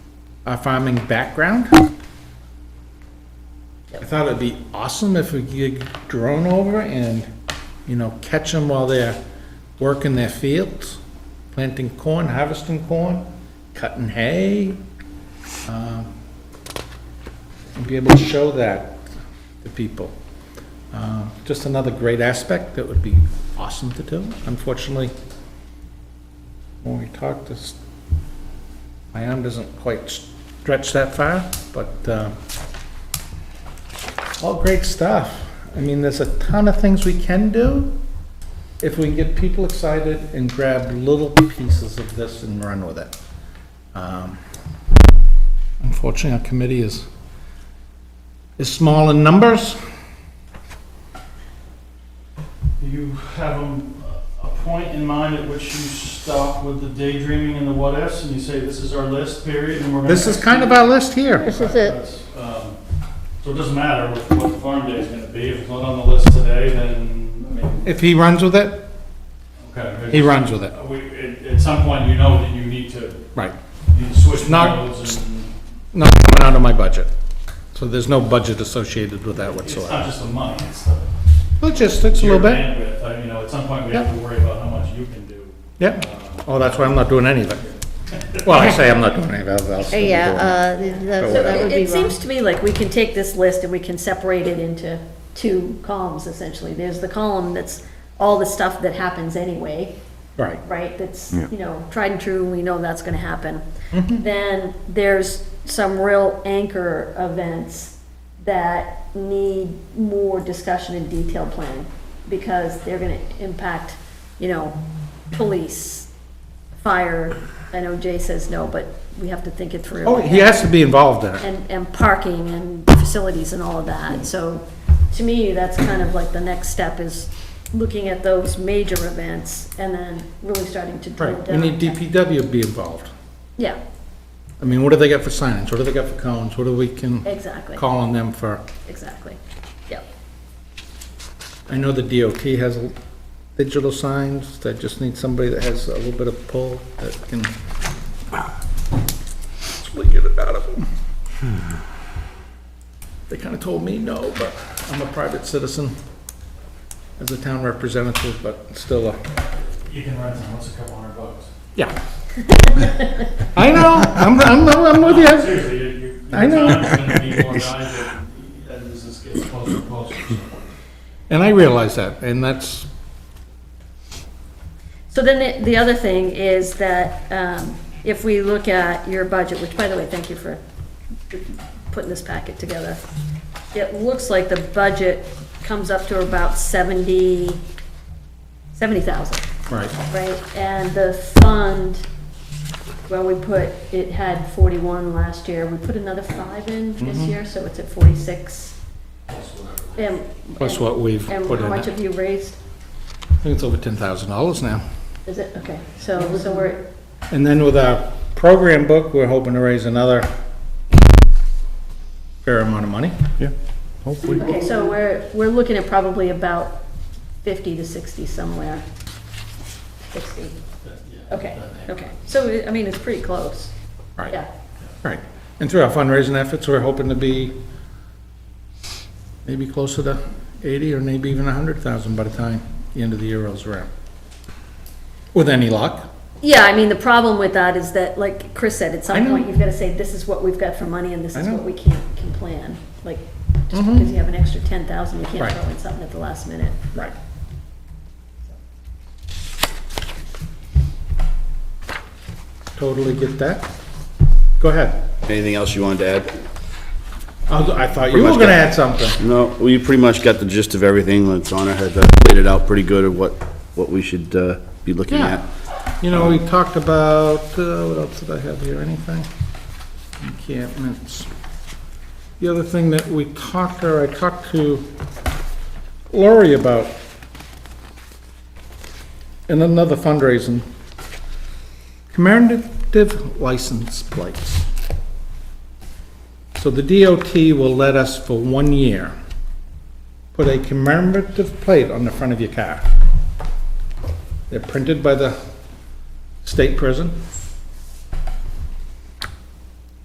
a farming background. I thought it'd be awesome if we could drone over and, you know, catch them while they're working their fields, planting corn, harvesting corn, cutting hay. um, And be able to show that to people. Uh, Just another great aspect that would be awesome to do. Unfortunately, when we talked, this, my arm doesn't quite stretch that far, but, uh, all great stuff. I mean, there's a ton of things we can do if we can get people excited and grab little pieces of this and run with it. Um, Unfortunately, our committee is, is small in numbers. Do you have um, a point in mind at which you stop with the daydreaming and the what-ifs, and you say, this is our list, period, and we're gonna... This is kind of our list here. This is it. That's, um, So it doesn't matter what what the farm day is gonna be, if it's not on the list today, then, I mean, If he runs with it, okay. he runs with it. Uh, We, at, at some point, you know that you need to, Right. you need to switch Not- modes, and Not coming out of my budget. So there's no budget associated with that it's whatsoever. not just the money, it's the... Logistics a little your bit. bandwidth. I- You know, at some point, we have to worry about how much you can do. Um, Yep. Oh, that's why I'm not doing anything. Well, I say I'm not doing anything, I'll still be doing Yeah, it. uh, th- that So that would be It wrong. seems to me like we can take this list and we can separate it into two columns essentially. There's the column that's all the stuff that happens anyway, Right. right? That's, you know, tried and true, we know that's gonna happen. Mm-hmm. Then there's some real anchor events that need more discussion and detailed planning because they're gonna impact, you know, police, fire. I know Jay says no, but we have to think it through Oh, he has to be involved in it. and, and parking and facilities and all of that. So to me, that's kind of like the next step is looking at those major events and then really starting to drill Right, we down. need DPW to be involved. Yeah, I mean, what do they got for signage? What do they got for cones? What do we can exactly, call on them for? exactly. Yep. I know the DOT has l- digital signs, they just need somebody that has a little bit of pull that can hopefully get it out of them. Hmm. They kind of told me no, but I'm a private citizen as a town representative, but still a You can rent them, what's a couple hundred bucks? Yeah. I know, I'm, I'm, I'm with you. Seriously, you- you- I know. your town's gonna need more guys as as this gets closer and closer. And I realize that, and that's, So then the, the other thing is that, um, if we look at your budget, which by the way, thank you for putting this packet together. It looks like the budget comes up to about seventy, seventy thousand. right, Right, and the fund, well, we put, it had forty-one last year, we put another five in this Mm-hmm. year, so it's at forty-six. And- plus what we've And put how in much have it. you raised? I think it's over ten thousand dollars now. Is it, okay, so, so we're, And then with our program book, we're hoping to raise another fair amount of money. okay, so we're, we're looking at probably about fifty to sixty somewhere. Sixty, okay, okay, so, I mean, it's pretty close, Right, yeah. right. And through our fundraising efforts, we're hoping to be maybe closer to eighty or maybe even a hundred thousand by the time the end of the year rolls around. With any luck. Yeah, I mean, the problem with that is that, like Chris said, at I some know. point, you've gotta say, this is what we've got for money and this I is know. Mm-hmm. what we can, can plan. Like, just because you have an extra ten thousand, you Right. can't throw in something at the last minute. Right. Totally get that. Go ahead. Anything else you wanted to add? I thought you were much gonna got- add something. No, we pretty much got the gist of everything. Lana had uh, laid it out pretty good of what, what we should uh, be looking Yeah. at. You know, we talked about, uh, what else did I have here, anything? Encampments. The other thing that we talked, or I talked to Lori about, in another fundraising, commemorative license plates. So the DOT will let us, for one year, put a commemorative plate on the front of your car. They're printed by the state prison.